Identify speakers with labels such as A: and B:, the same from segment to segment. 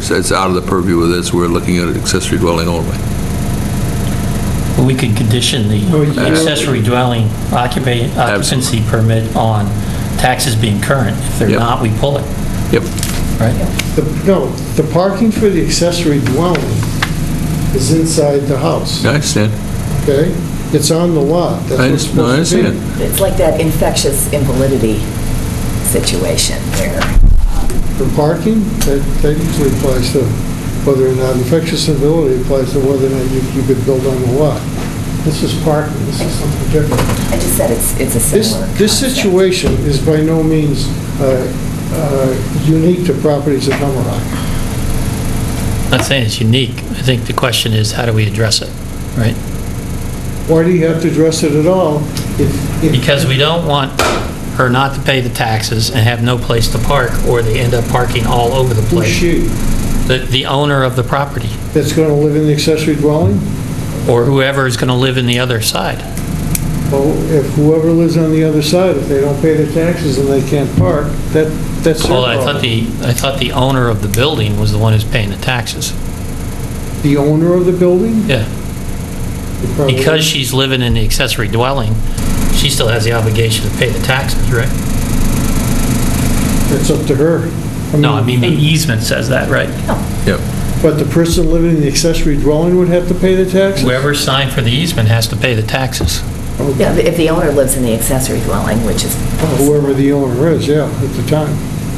A: it's, it's out of the purview of this, we're looking at accessory dwelling only.
B: But we could condition
C: Well,
B: the
C: you-
B: accessory dwelling occupa- occupancy permit on taxes being current. If they're
A: Yep.
B: not, we pull it,
A: Yep,
B: right?
C: The- No, the parking for the accessory dwelling is inside the house,
A: I understand.
C: okay? It's on the lot. That's
A: I
C: what's
A: just- no, I
C: supposed to be.
A: understand.
D: It's like that infectious invalidity situation where,
C: For parking, that that usually applies to whether or not infectious ability applies to whether or not you you could build on the lot. This is parking, this is something different.
D: I just said it's, it's a
C: This,
D: similar
C: this
D: concept.
C: situation is by no means uh, uh, unique to properties in Hummerock.
B: Not saying it's unique. I think the question is, how do we address it, right?
C: Why do you have to address it at all? if- if-
B: Because we don't want her not to pay the taxes and have no place to park, or they end up parking all over the
C: Who's
B: place.
C: she?
B: The, the owner of the property,
C: That's going to live in the accessory dwelling?
B: or whoever is going to live in the other side.
C: Well, if whoever lives on the other side, if they don't pay their taxes and they can't park, that, that's their
B: Well, I thought
C: problem.
B: the, I thought the owner of the building was the one who's paying the taxes.
C: The owner of the building?
B: Yeah.
C: They probably-
B: Because she's living in the accessory dwelling, she still has the obligation to pay the taxes, right?
C: It's up to her.
B: No, I mean, the
C: Mm-hmm.
B: easement says that, right?
A: yep.
C: But the person living in the accessory dwelling would have to pay the taxes?
B: Whoever signed for the easement has to pay the taxes.
D: Yeah, if the owner lives in the accessory dwelling, which is.
C: Whoever the owner is, yeah, at the time.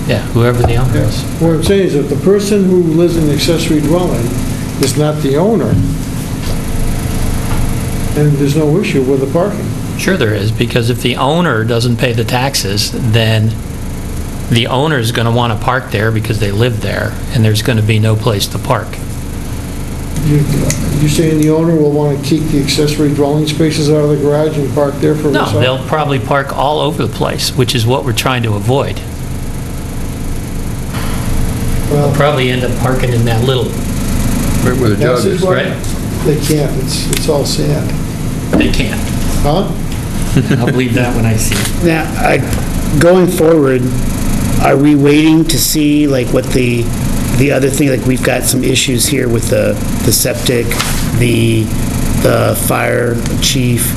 B: Yeah, whoever the owner is.
C: What I'm saying is if the person who lives in the accessory dwelling is not the owner, then there's no issue with the parking.
B: Sure there is, because if the owner doesn't pay the taxes, then the owner's going to want to park there because they live there, and there's going to be no place to park.
C: You- You're saying the owner will want to keep the accessory dwelling spaces out of the garage and park there for
B: No,
C: himself?
B: they'll probably park all over the place, which is what we're trying to avoid. They'll
C: Well,
B: probably end up parking in that little,
A: Right where the
C: that's
A: jog is.
C: his right.
B: right?
C: They can't, it's, it's all sand.
B: They can't.
C: Huh?
B: I'll believe that when I see it.
E: Now, I, going forward, are we waiting to see, like, what the, the other thing, like, we've got some issues here with the, the septic, the, the fire chief?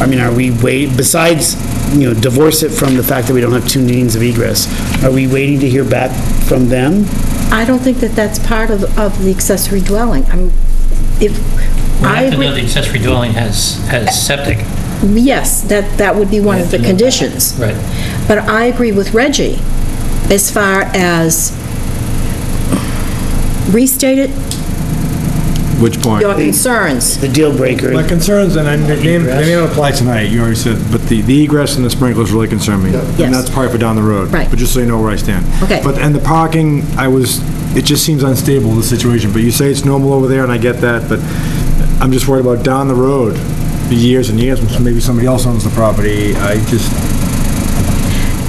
E: I mean, are we wait, besides, you know, divorce it from the fact that we don't have two means of egress, are we waiting to hear back from them?
F: I don't think that that's part of, of the accessory dwelling. I'm, if,
B: We
F: I
B: have to know the
F: agree,
B: accessory dwelling has, has septic.
F: yes, that, that would be one
B: We have
F: of the
B: to know that.
F: conditions.
B: Right.
F: But I agree with Reggie as far as, restate it,
G: Which point?
F: your concerns.
E: The deal breaker?
G: My concerns, and I- they may they may not apply tonight, you already said, but the the egress and the sprinklers really concern me.
F: Yes.
G: And that's part for down the road.
F: Right.
G: But just so you know where I stand.
F: Okay.
G: But, and the parking, I was, it just seems unstable, the situation, but you say it's normal over there, and I get that, but I'm just worried about down the road, years and years, maybe somebody else owns the property, I just,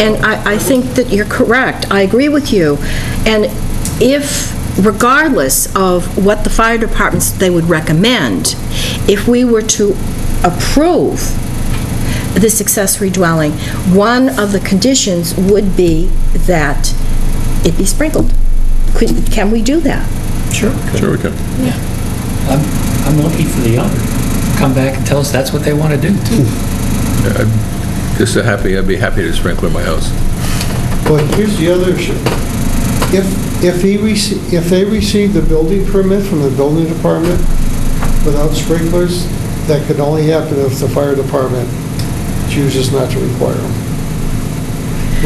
F: And I, I think that you're correct. I agree with you. And if, regardless of what the fire departments, they would recommend, if we were to approve this accessory dwelling, one of the conditions would be that it be sprinkled. Could, can we do that?
B: Sure.
A: Sure we can.
B: I'm, I'm looking for the owner. Come back and tell us that's what they want to do, too.
A: Just so happy, I'd be happy to sprinkler my house.
C: But here's the other issue. If, if he, rece- if they receive the building permit from the building department without sprinklers, that could only happen if the fire department chooses not to require them.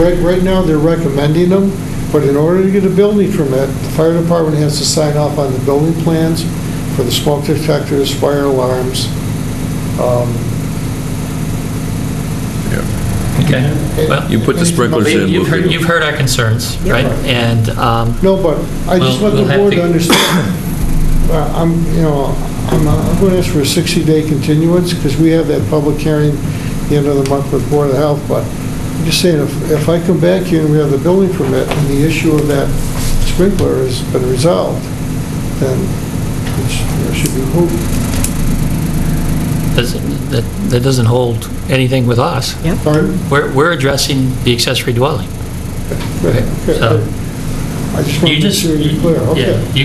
C: Right, right now, they're recommending them, but in order to get a building permit, the fire department has to sign off on the building plans for the smoke detectors, fire alarms. um,
B: Okay. Well,
A: You put the sprinklers in.
B: You've
A: we'll-
B: heard, you've heard our concerns, right? And, um,
C: No, but I just
B: Well,
C: want the
B: we'll have
C: board to
B: to-
C: understand, Uh, I'm, you know, I'm, uh, I'm going to ask for a 60-day continuance, because we have that public hearing the end of the month with Board of Health, but I'm just saying, if, if I come back here and we have the building permit, and the issue of that sprinkler has been resolved, then it should- it should be moved.
B: doesn't- that, that doesn't hold anything with us.
C: Pardon?
B: We're, we're addressing the accessory dwelling.
C: Okay,
B: So-
C: I just
B: You
C: want to make
B: just.
C: sure you're clear,
B: yeah,
C: okay.
B: you